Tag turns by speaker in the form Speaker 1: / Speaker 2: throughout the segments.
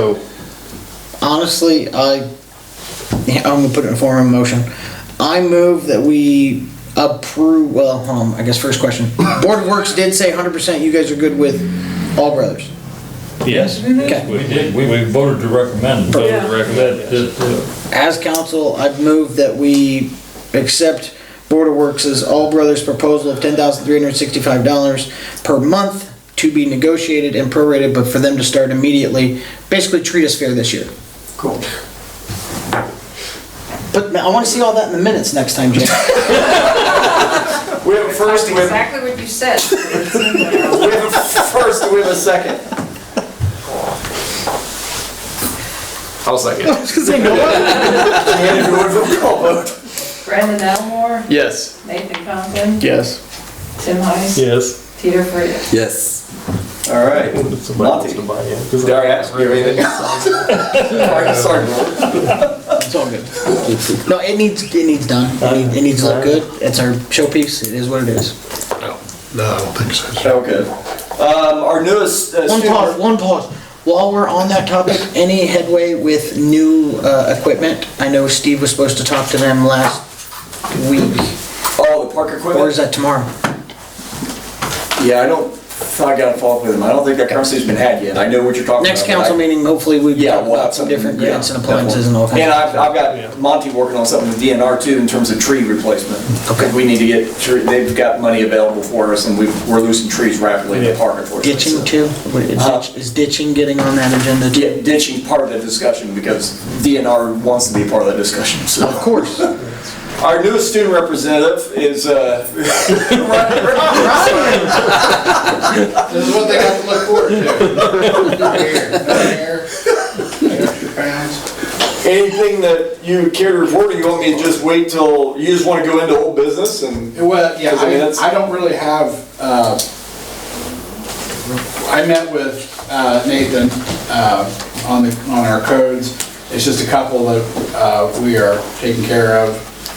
Speaker 1: So,
Speaker 2: Honestly, I, yeah, I'm gonna put it in form of a motion. I move that we approve, well, um, I guess first question. Board of Works did say hundred percent you guys are good with All Brothers.
Speaker 3: Yes,
Speaker 2: Okay.
Speaker 3: we did, we, we voted to recommend.
Speaker 4: Voted to recommend,
Speaker 3: That- uh, that,
Speaker 2: As council, I'd move that we accept Board of Works' All Brothers proposal of ten thousand three hundred sixty-five dollars per month to be negotiated and prorated, but for them to start immediately. Basically treat us fair this year.
Speaker 5: Cool.
Speaker 2: But I wanna see all that in the minutes next time, Jay.
Speaker 5: We have a first, we have,
Speaker 4: Exactly what you said. It's in there.
Speaker 5: we have a first, we have a second. I'll second. And we would have a call vote.
Speaker 4: Brandon Elmore,
Speaker 5: Yes.
Speaker 4: Nathan Compton,
Speaker 2: Yes.
Speaker 4: Tim Heiss,
Speaker 3: Yes.
Speaker 4: Peter Frieda.
Speaker 5: Yes. All right. Monty. Dari, ask me anything. Sorry, sorry.
Speaker 2: It's all good. No, it needs, it needs done. It needs, it needs to look good. It's our showpiece. It is what it is.
Speaker 1: no, I don't think so.
Speaker 5: Okay. Um, our newest uh,
Speaker 2: One pause,
Speaker 5: student.
Speaker 2: one pause. While we're on that topic, any headway with new, uh, equipment? I know Steve was supposed to talk to them last week,
Speaker 5: Oh, the park
Speaker 2: or is
Speaker 5: equipment?
Speaker 2: that tomorrow?
Speaker 5: Yeah, I don't, I gotta follow up with him. I don't think that conversation's been had yet. I know what you're talking about.
Speaker 2: Next
Speaker 5: but I-
Speaker 2: council meeting, hopefully we've
Speaker 5: Yeah,
Speaker 2: talked
Speaker 5: we'll
Speaker 2: about
Speaker 5: have
Speaker 2: some
Speaker 5: something,
Speaker 2: different
Speaker 5: yeah,
Speaker 2: grants and appliances and all
Speaker 5: And
Speaker 2: kinds of
Speaker 5: I've, I've
Speaker 3: Yeah.
Speaker 5: got Monty working on something with DNR too in terms of tree replacement.
Speaker 2: Okay.
Speaker 5: We need to get, tree- they've got money available for us and we've, we're losing trees rapidly in the park unfortunately.
Speaker 2: Ditching
Speaker 5: so.
Speaker 2: too? What- is
Speaker 5: Uh,
Speaker 2: ditch- Is ditching getting on that agenda too?
Speaker 5: Yeah, ditching part of the discussion because DNR wants to be part of that discussion, so.
Speaker 2: Of course.
Speaker 5: Our newest student representative is, uh,
Speaker 6: This is what they have to look forward to. Here, there, there, crowns.
Speaker 5: anything that you care to report or you want me to just wait till, you just want to go into old business and?
Speaker 6: Well, yeah,
Speaker 5: Because, I mean, that's-
Speaker 6: I, I don't really have, uh, I met with, uh, Nathan, uh, on the, on our codes. It's just a couple that, uh, we are taking care of.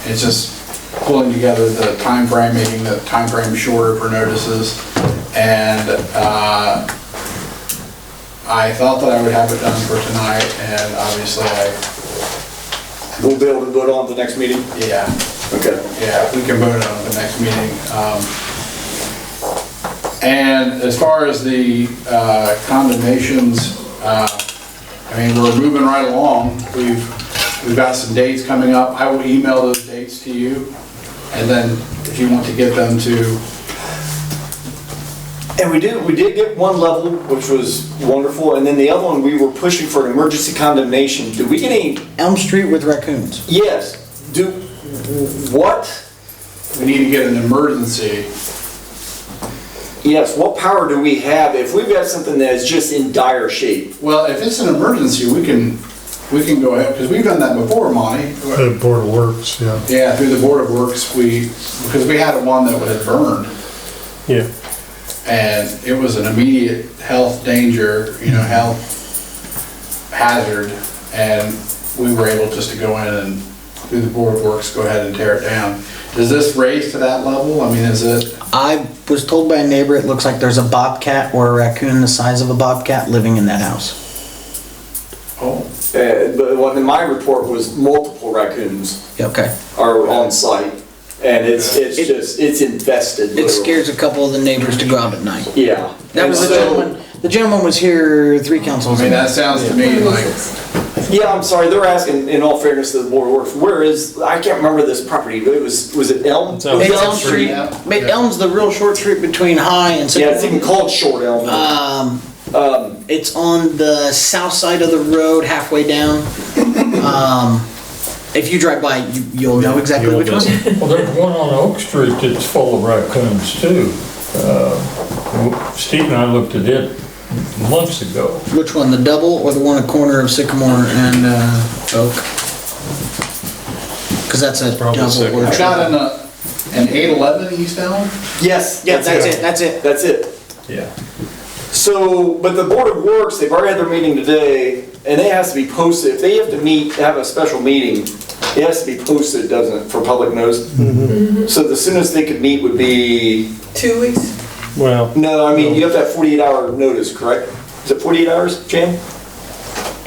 Speaker 6: It's just pulling together the time frame, making the time frame shorter for notices. And, uh, I thought that I would have it done for tonight and obviously I,
Speaker 5: We'll be able to vote on at the next meeting?
Speaker 6: yeah.
Speaker 5: Okay.
Speaker 6: Yeah, we can vote on it at the next meeting. Um, And as far as the uh, condemnations, uh, I mean, we're moving right along. We've, we've got some dates coming up. I will email those dates to you. And then if you want to get them to,
Speaker 5: And we did, we did get one level, which was wonderful, and then the other one, we were pushing for an emergency condemnation. Did we get any?
Speaker 2: Elm Street with raccoons.
Speaker 5: Yes. Do, what?
Speaker 6: we need to get an emergency.
Speaker 5: Yes, what power do we have if we've got something that is just in dire shape?
Speaker 6: Well, if it's an emergency, we can, we can go ahead, because we've done that before, Monty.
Speaker 1: The board works, yeah.
Speaker 6: Yeah, through the Board of Works, we, because we had one that had burned.
Speaker 1: Yeah.
Speaker 6: and it was an immediate health danger, you know, health hazard, and we were able just to go in and, through the Board of Works, go ahead and tear it down. Does this raise to that level? I mean, is it,
Speaker 2: I was told by a neighbor it looks like there's a bobcat or a raccoon the size of a bobcat living in that house.
Speaker 6: oh,
Speaker 5: Uh, but what in my report was multiple raccoons
Speaker 2: Okay.
Speaker 5: are on site, and it's, it's just, it's infested.
Speaker 2: It
Speaker 5: literally.
Speaker 2: scares a couple of the neighbors to go out at night.
Speaker 5: Yeah.
Speaker 2: That was
Speaker 5: And
Speaker 2: the
Speaker 5: so-
Speaker 2: gentleman, the gentleman was here three councils
Speaker 6: I mean,
Speaker 2: ago.
Speaker 6: that sounds to me like,
Speaker 5: Yeah, I'm sorry, they're asking, in all fairness to the board of works, where is, I can't remember this property, but it was, was it Elm?
Speaker 3: Elm.
Speaker 2: It's
Speaker 5: It was
Speaker 2: Elm Street,
Speaker 6: yeah.
Speaker 2: but Elm's the real short street between High and
Speaker 5: Yeah, it's even
Speaker 2: Sycamore.
Speaker 5: called Short Elm.
Speaker 2: Um,
Speaker 5: Um,
Speaker 2: it's on the south side of the road, halfway down. Um, if you drive by, you, you'll know exactly which one.
Speaker 3: Well, there's one on Oak Street that's full of raccoons too. Uh, Steve and I looked at it months ago.
Speaker 2: Which one, the double or the one at corner of Sycamore and uh, Oak? Because that's a double. or
Speaker 6: I've
Speaker 2: triple.
Speaker 6: got an, uh, an eight eleven east Elm?
Speaker 5: yes,
Speaker 2: Yeah, that's it, that's it.
Speaker 5: That's it.
Speaker 3: Yeah.
Speaker 5: So, but the Board of Works, they've already had their meeting today, and it has to be posted, if they have to meet, have a special meeting, it has to be posted, doesn't it, for public notice? So the soonest they could meet would be,
Speaker 4: Two weeks?
Speaker 7: Well,
Speaker 5: no, I mean, you have to have forty-eight hour notice, correct? Is it forty-eight hours, Jan?